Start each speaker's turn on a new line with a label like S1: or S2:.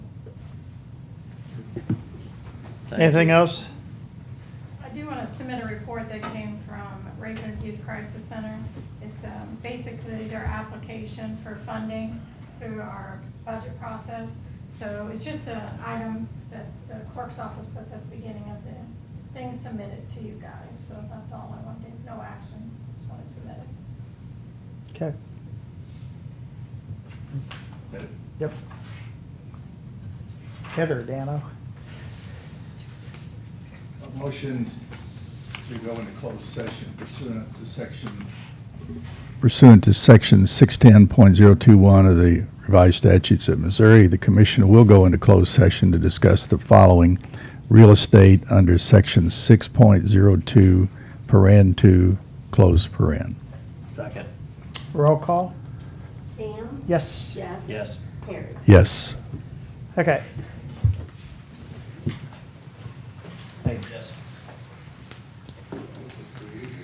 S1: Thank
S2: Anything
S1: you.
S2: else?
S3: I do want to submit a report that came from Raven Youth Crisis Center. It's um, basically their application for funding through our budget process. So it's just an item that the clerk's office puts at the beginning of the thing submitted to you guys. So that's all I want to do, no action, just want to submit it.
S2: Okay. Yep. Heather, Dano.
S4: A motion to go into closed session pursuant to section. Pursuant to section 610.021 of the revised statutes of Missouri, the commission will go into closed session to discuss the following. Real estate under section 6.02, paren 2, close paren.
S1: Second,
S2: Roll call?
S5: Sam?
S2: Yes.
S5: Jeff?
S1: yes.
S5: Terry?
S4: Yes.
S2: Okay.
S1: Hey, yes.